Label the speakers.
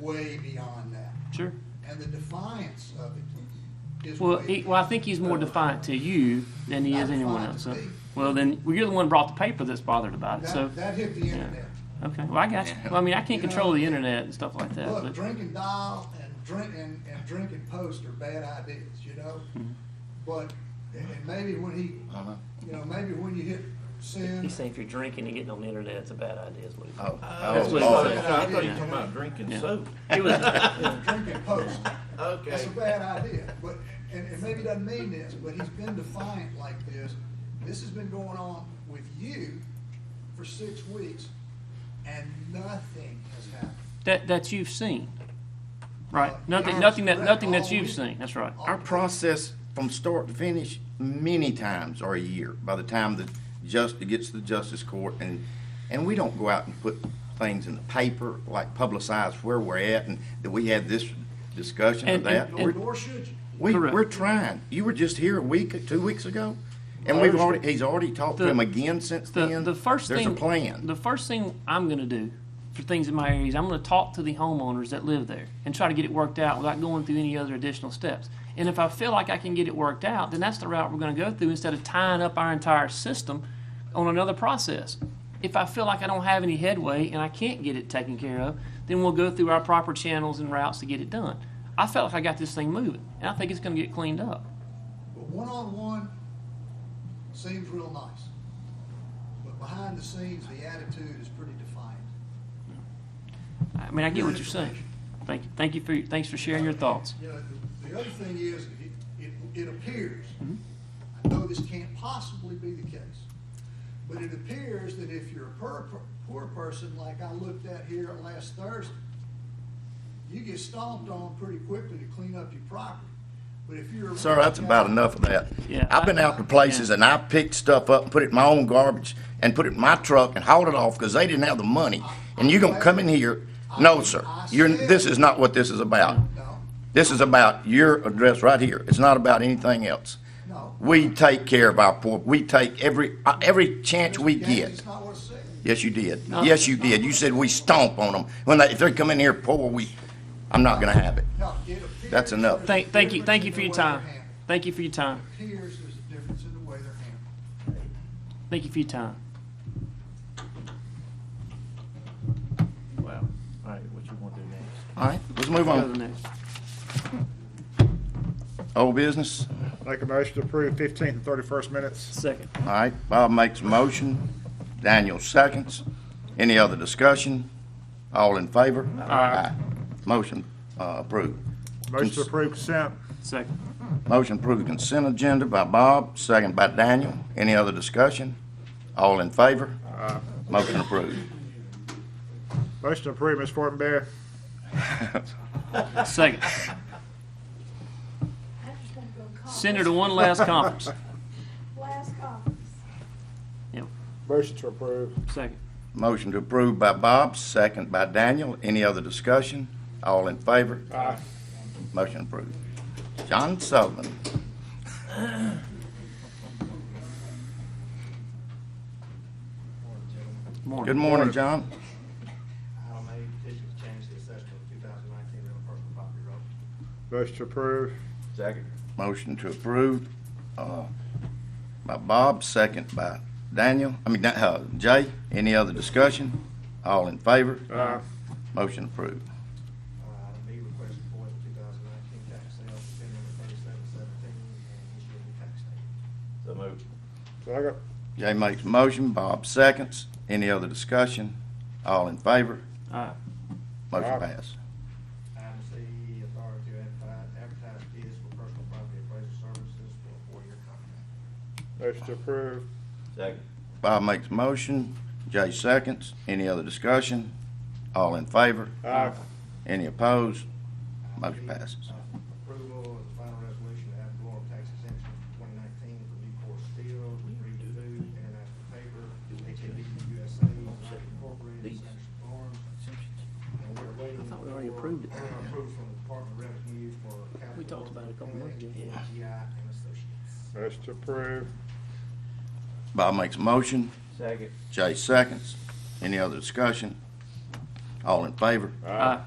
Speaker 1: way beyond that.
Speaker 2: Sure.
Speaker 1: And the defiance of it is.
Speaker 2: Well,
Speaker 1: way
Speaker 2: he, well, I think he's more defiant to you than he
Speaker 1: Not
Speaker 2: is anyone
Speaker 1: defiant
Speaker 2: else.
Speaker 1: to
Speaker 2: So,
Speaker 1: me.
Speaker 2: well, then well, you're the one who brought the paper that's bothered about it.
Speaker 1: That,
Speaker 2: So,
Speaker 1: that hit the
Speaker 2: yeah.
Speaker 1: internet.
Speaker 2: okay. Well, I got you. Well, I mean, I can't
Speaker 1: You know,
Speaker 2: control the internet and stuff like that.
Speaker 1: Look,
Speaker 2: But,
Speaker 1: drink and dial and drink and, and drink and post are bad ideas, you know?
Speaker 2: Mm-hmm.
Speaker 1: But, and and maybe when he,
Speaker 3: I know.
Speaker 1: you know, maybe when you hit sin,
Speaker 2: he's saying if you're drinking and getting on the internet, it's a bad idea. Is what he
Speaker 3: Oh,
Speaker 2: Uh, That's what
Speaker 3: oh,
Speaker 2: he
Speaker 1: said.
Speaker 3: oh.
Speaker 4: I thought you were talking about drinking
Speaker 2: Yeah.
Speaker 4: soap.
Speaker 2: It was.
Speaker 1: drink and post, that's
Speaker 4: Okay.
Speaker 1: a bad idea. But, and, and maybe doesn't mean this, but he's been defiant like this. This has been going on with you for six weeks and nothing has happened.
Speaker 2: that that you've seen, right?
Speaker 1: Uh,
Speaker 2: Nothing,
Speaker 1: ours-
Speaker 2: nothing that
Speaker 1: right,
Speaker 2: nothing
Speaker 1: all
Speaker 2: that you've
Speaker 1: we-
Speaker 2: seen. That's right.
Speaker 1: all
Speaker 3: Our process from start to finish, many times are a year, by the time the just, it gets to the justice court and, and we don't go out and put things in the paper, like publicize where we're at and that we had this discussion or
Speaker 2: And-
Speaker 3: that.
Speaker 2: and-
Speaker 1: Nor
Speaker 3: We're-
Speaker 1: nor should you.
Speaker 3: We,
Speaker 2: Correct.
Speaker 3: we're trying. You were just here a week, two weeks ago, and we've already, he's already talked to
Speaker 2: The-
Speaker 3: him again since
Speaker 2: The,
Speaker 3: then.
Speaker 2: the first thing,
Speaker 3: There's a plan.
Speaker 2: The first thing I'm going to do for things in my area is I'm going to talk to the homeowners that live there and try to get it worked out without going through any other additional steps. And if I feel like I can get it worked out, then that's the route we're going to go through instead of tying up our entire system on another process. If I feel like I don't have any headway and I can't get it taken care of, then we'll go through our proper channels and routes to get it done. I felt like I got this thing moving, and I think it's going to get cleaned up.
Speaker 1: But one on one seems real nice. But behind the scenes, the attitude is pretty defiant.
Speaker 2: I mean, I get what you're saying. Thank you. Thank you for your, thanks for sharing your thoughts.
Speaker 1: You know, the, the other thing is, it, it, it appears,
Speaker 3: Mm-hmm.
Speaker 1: I know this can't possibly be the case, but it appears that if you're a poor, poor person like I looked at here last Thursday, you get stomped on pretty quickly to clean up your property. But if you're. a
Speaker 3: Sir,
Speaker 1: rich
Speaker 3: that's about
Speaker 1: guy-
Speaker 3: enough of that.
Speaker 2: Yeah.
Speaker 3: I've been out to places and I picked stuff up and put it in my own garbage and put it in my truck and hauled it off because they didn't have the money. And you're gonna come in here, no, sir, you're, this is not what this is about.
Speaker 1: No,
Speaker 3: This is about your address right here. It's not about anything else.
Speaker 1: no.
Speaker 3: We take care of our poor, we take every, uh, every chance we
Speaker 1: Gaines,
Speaker 3: get.
Speaker 1: It's not what it said.
Speaker 3: Yes, you did. Yes, you did. You said we stomp on them. When they, if they come in here poor, we, I'm not gonna have it.
Speaker 1: No, it appears
Speaker 3: That's enough.
Speaker 1: there's a
Speaker 2: Thank, thank you, thank you
Speaker 1: difference
Speaker 2: for
Speaker 1: in the
Speaker 2: your
Speaker 1: way
Speaker 2: time.
Speaker 1: they're handled.
Speaker 2: Thank you for your time.
Speaker 1: Appears there's a difference in the way they're handled.
Speaker 2: Thank you for your time.
Speaker 4: Wow. All right, what you want to do next?
Speaker 3: All right, let's move
Speaker 2: Go to the
Speaker 3: on.
Speaker 2: next.
Speaker 3: Old business.
Speaker 5: Make a motion to approve fifteenth and thirty-first minutes.
Speaker 2: Second.
Speaker 3: All right, Bob makes a motion, Daniel seconds. Any other discussion? All in favor? Aye. Motion uh, approved.
Speaker 5: Motion to approve consent.
Speaker 2: Second.
Speaker 3: Motion approved consent agenda by Bob, second by Daniel. Any other discussion? All in favor? Motion approved.
Speaker 5: Motion to approve, Ms. Fortenberry.
Speaker 2: Second.
Speaker 6: I'm just gonna go conference.
Speaker 2: Send her to one last conference.
Speaker 6: Last conference.
Speaker 2: Yep.
Speaker 5: Motion to approve.
Speaker 2: Second.
Speaker 3: Motion to approve by Bob, second by Daniel. Any other discussion? All in favor?
Speaker 5: Aye.
Speaker 3: Motion approved. John Sullivan. Good
Speaker 2: Morning.
Speaker 3: morning, John.
Speaker 7: Item A, petition to change the assessment of 2019 real personal property road.
Speaker 5: Motion to approve.
Speaker 7: Second.
Speaker 3: Motion to approve, uh, by Bob, second by Daniel, I mean, uh, Jay. Any other discussion? All in favor?
Speaker 5: Aye.
Speaker 3: Motion approved.
Speaker 7: Item B, request Uh, for the 2019 tax sale, pin number 3717, and issue a new tax statement.
Speaker 4: So moved.
Speaker 5: Second.
Speaker 3: Jay makes a motion, Bob seconds. Any other discussion? All in favor?
Speaker 2: Aye.
Speaker 3: Motion
Speaker 5: Aye.
Speaker 3: passed.
Speaker 7: Item C, authority to advertise- advertise bids for personal property appraisal services for a four-year contract.
Speaker 5: Motion to approve.
Speaker 4: Second.
Speaker 3: Bob makes a motion, Jay seconds. Any other discussion? All in favor?
Speaker 5: Aye.
Speaker 3: Any opposed?
Speaker 7: Item
Speaker 3: Motion
Speaker 7: D,
Speaker 3: passes.
Speaker 7: uh, Approval of the final resolution to add valorem tax exemption for 2019 for Newport Steel, Reed Food, International Paper, ATV USA, Knight Incorporated,
Speaker 2: These.
Speaker 7: Sanderson Farms, And we're waiting
Speaker 2: thought we already
Speaker 7: for-
Speaker 2: approved it.
Speaker 7: uh, Approval from the Department of Revenue for capital.
Speaker 2: We talked about it a couple months ago.
Speaker 7: improvement, GI and Associates.
Speaker 5: Motion to approve.
Speaker 3: Bob makes a motion,
Speaker 4: Second.
Speaker 3: Jay seconds. Any other discussion? All in favor?
Speaker 2: Aye.